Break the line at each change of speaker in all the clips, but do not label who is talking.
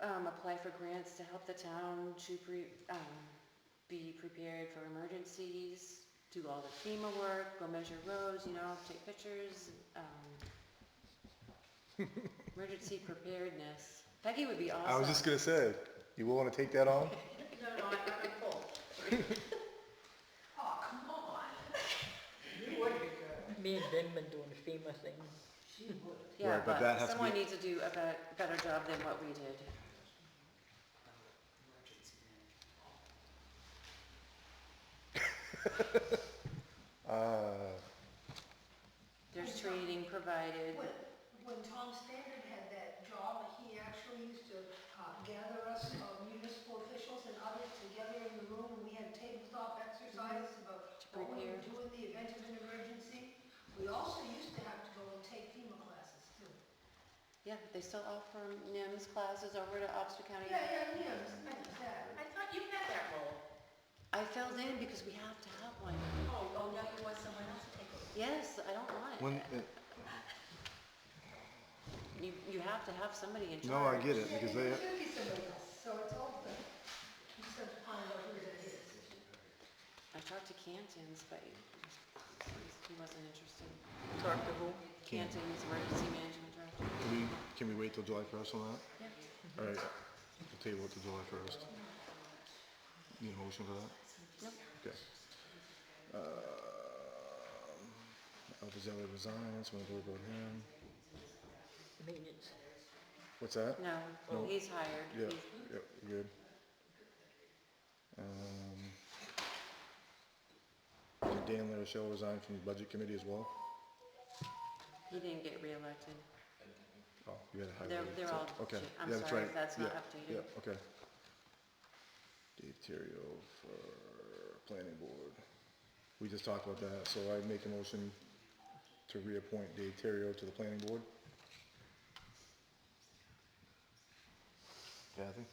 um, apply for grants to help the town to pre, um, be prepared for emergencies, do all the FEMA work, go measure roads, you know, take pictures, um, emergency preparedness. Peggy would be awesome.
I was just gonna say, you will wanna take that on?
No, no, I'm not gonna pull. Oh, come on. You would be good.
Me and Ben been doing the FEMA thing.
She would.
Yeah,
Right, but that
but
has to
someone
be-
needs to do a bet- better job than what we did.
Uh,
There's training provided.
When, when Tom Standard had that job, he actually used to uh, gather us uh, municipal officials and others together in the room, and we had tabletop exercises
Mm-hmm.
about
To
what we
prepare.
would do in the event of an emergency. We also used to have to go and take FEMA classes too.
Yeah, they still offer NIMS classes over to Oxford County.
Yeah, yeah, yeah, it's not that.
I thought you had that role.
I filled in because we have to have one.
Oh, oh, now you want someone else to take over.
Yes, I don't want it.
when,
You, you have to have somebody in charge.
no, I get it, because they,
It should be somebody else, so it's open. You just have to find out who that is.
I talked to Canton's, but he- he wasn't interested.
Talk to who?
Canton's emergency management director.
can we, can we wait till July first on that?
Yeah.
Alright, we'll table it till July first. Need a motion for that?
Nope.
Okay. Um, Alpha Zelli resigns, when we vote him,
Maintenance.
what's that?
No,
No.
he's hired.
Yeah,
He's-
yeah, we're good. Um, did Dan Larichelle resign from the budget committee as well?
He didn't get reelected.
Oh, you had a high.
They're,
vote,
they're
so-
all,
Okay,
shit. I'm
yeah, that's
sorry
right.
if that's not
Yeah,
updated.
Yeah, okay. Dave Terrio for planning board. We just talked about that, so I make a motion to reappoint Dave Terrio to the planning board. Kathy?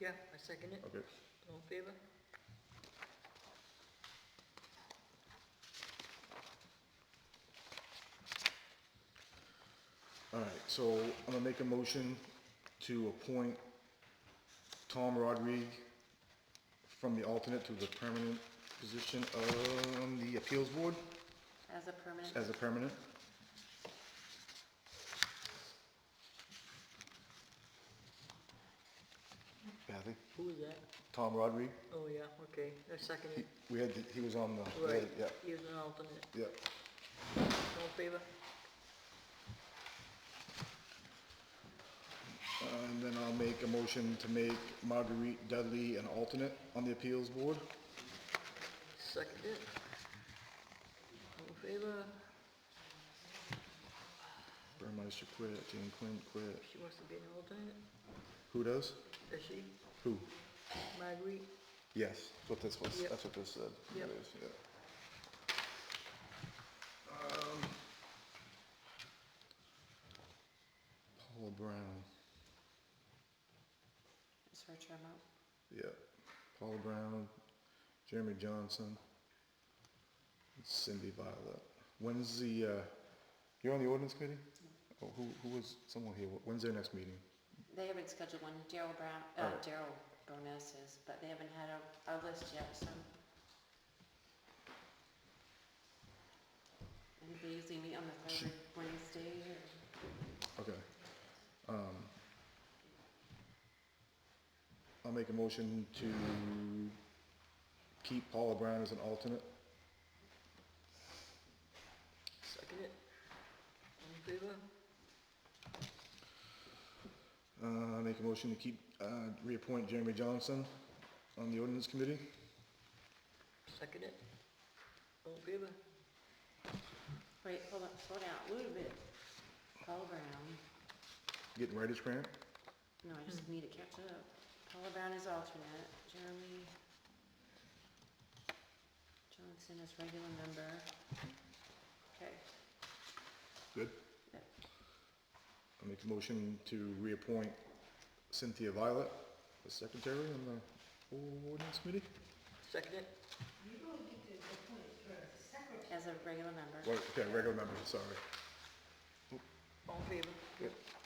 Yeah, I second it.
Okay.
All in favor?
All right, so I'm gonna make a motion to appoint Tom Rodrigue from the alternate to the permanent position on the appeals board
As a permanent,
as a permanent. Kathy?
Who is that?
Tom Rodrigue,
Oh, yeah, okay, I second it.
we had, the- he was on the,
Right,
yeah,
he was an alternate.
yeah.
All in favor?
And then I'll make a motion to make Marguerite Dudley an alternate on the appeals board.
Second it. All in favor?
Burmeister quit, Jane Quinn quit.
She wants to be an alternate,
Who does?
does she?
Who?
Marguerite?
Yes, that's what this was,
Yep.
that's what this said.
Yep.
It is, yeah. Um, Paula Brown,
is her term out?
yeah. Paula Brown, Jeremy Johnson, and Cindy Violet. When's the, uh, you're on the ordinance committee? Oh, who, who was, someone here, when's their next meeting?
They haven't scheduled one. Daryl Brown,
All
uh,
right.
Daryl Bonus is, but they haven't had a, a list yet, so. I think they usually meet on the
She-
third Wednesday or,
Okay. Um, I'll make a motion to keep Paula Brown as an alternate.
Second it. All in favor?
Uh, I make a motion to keep, uh, reappoint Jeremy Johnson on the ordinance committee.
Second it. All in favor?
wait, hold on, slow down a little bit. Paula Brown,
Getting writer's cramp?
no, I just need to catch up. Paula Brown is alternate, Jeremy Johnson is regular member. Okay,
Good.
Yep.
I make a motion to reappoint Cynthia Violet as secretary on the ordinance committee.
Second it.
You really get to appoint her as secretary.
as a regular member.
Right, Okay, regular member, sorry.
All in favor?
Yep.